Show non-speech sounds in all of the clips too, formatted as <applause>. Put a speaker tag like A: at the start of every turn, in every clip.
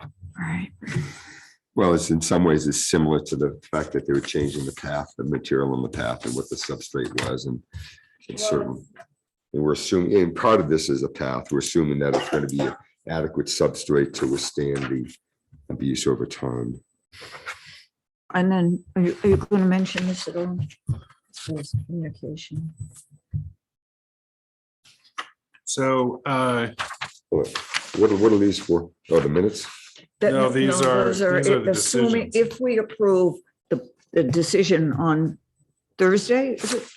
A: All right.
B: Well, it's in some ways it's similar to the fact that they were changing the path, the material on the path and what the substrate was and it's certain. And we're assuming, and part of this is a path, we're assuming that it's going to be adequate substrate to withstand the abuse over time.
A: And then, are you, are you going to mention this at all? This Communication.
C: So, uh,
B: What, what are what are these for? Oh, the minutes?
A: That-
C: No, these are-
A: those
C: these are the
A: assuming-
C: decisions.
A: If we approve the, the decision on Thursday, is it?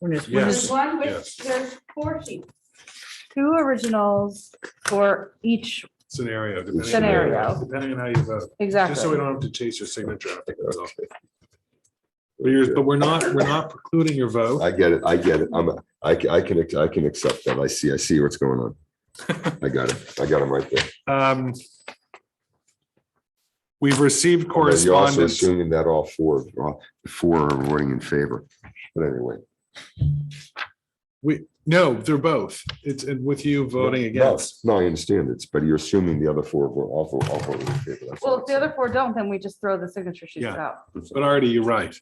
A: When is, when
C: Yes.
D: There's
A: is,
D: one with,
C: yes.
D: there's four sheets. Two originals for each,
C: scenario. depending on-
D: Scenario.
C: Depending on how you vote,
D: exactly.
C: just so we don't have to chase your signature. after that's all. But you're, but we're not, we're not precluding your vote.
B: I get it, I get it. I'm, a- I, ca- I can, I can accept that. I see, I see what's going on. I got it. I got them right there.
C: Um, We've received
B: Although You're also
C: correspondence.
B: assuming that all four, all four are voting in favor. But anyway.
C: We, no, they're both. It's and with you voting
B: No,
C: against.
B: No, I understand it's, but you're assuming the other four were all, all voting in favor. That's
D: Well,
B: all
D: if
B: I'm
D: the other four don't, then we just throw the signature sheets
C: Yeah.
D: out.
C: But Artie, you're right.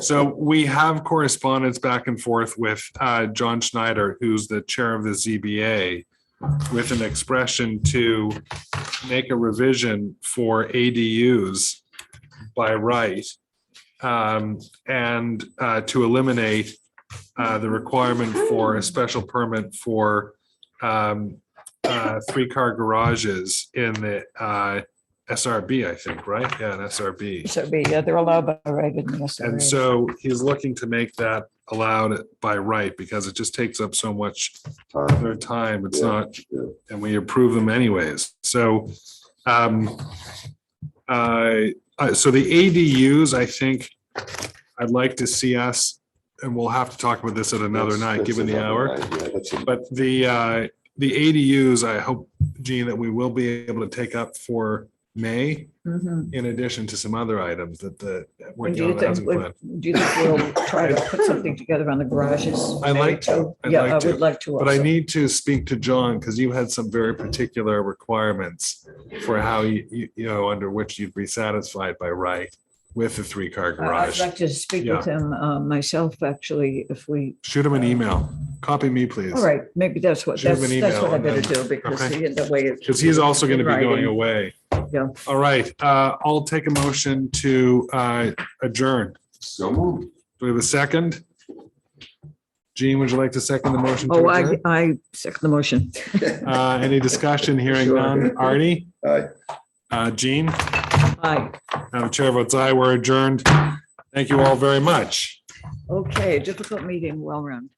C: So we have correspondence back and forth with uh, John Schneider, who's the chair of the ZBA, with an expression to make a revision for ADUs by right um, and uh, to eliminate uh, the requirement for a special permit for um, uh, three-car garages in the uh, SRB, I think, right? Yeah, an SRB.
A: so be, yeah, they're allowed by right. in the
C: And
A: SRA.
C: so he's looking to make that allowed by right because it just takes up so much
B: saying.
C: their time. It's
B: Yeah,
C: not,
B: yeah.
C: and we approve them anyways. So, um, I, I- so the ADUs, I think I'd like to see us, and we'll have to talk about this at another
B: That's-
C: night,
B: that's
C: given the
B: another
C: hour.
B: night, yeah, that's a-
C: But the, uh, the ADUs, I hope, Gene, that we will be able to take up for May
A: Mhm.
C: in addition to some other items that the.
A: And
C: working
A: Do
C: on
A: you
C: the
A: think,
C: housing plan.
A: do you think we'll try to put something together on the garages?
C: I'd like
A: maybe, too?
C: I'd
A: Yeah,
C: like
A: I
C: to,
A: would like to.
C: But I
A: also.
C: need to speak to John because you had some very particular requirements for how you, you, you know, under which you'd be satisfied by right with the three car
A: I- I'd
C: garage.
A: like to speak with him uh, myself, actually, if we,
C: Shoot him an email. Copy me, please.
A: all right, maybe that's what,
C: Shoot him
A: that's,
C: an
A: that's
C: email
A: what I
C: and
A: better
C: then-
A: do because
C: okay.
A: the the way. it's-
C: Because he's also going to be going
A: Writing.
C: away.
A: Yeah.
C: All right, uh, I'll take a motion to, uh, adjourn.
B: So moved.
C: Do we have a second? Gene, would you like to second the motion? to
A: Oh, I,
C: adjourn?
A: I second the motion.
C: <laughs>
B: <laughs>
C: Uh, any discussion? Hearing
B: Sure.
C: none. Artie,
B: Aye.
C: uh, Gene?
A: Aye.
C: Madam Chair votes aye, we're adjourned. Thank you all very much.
A: Okay, difficult meeting, well run.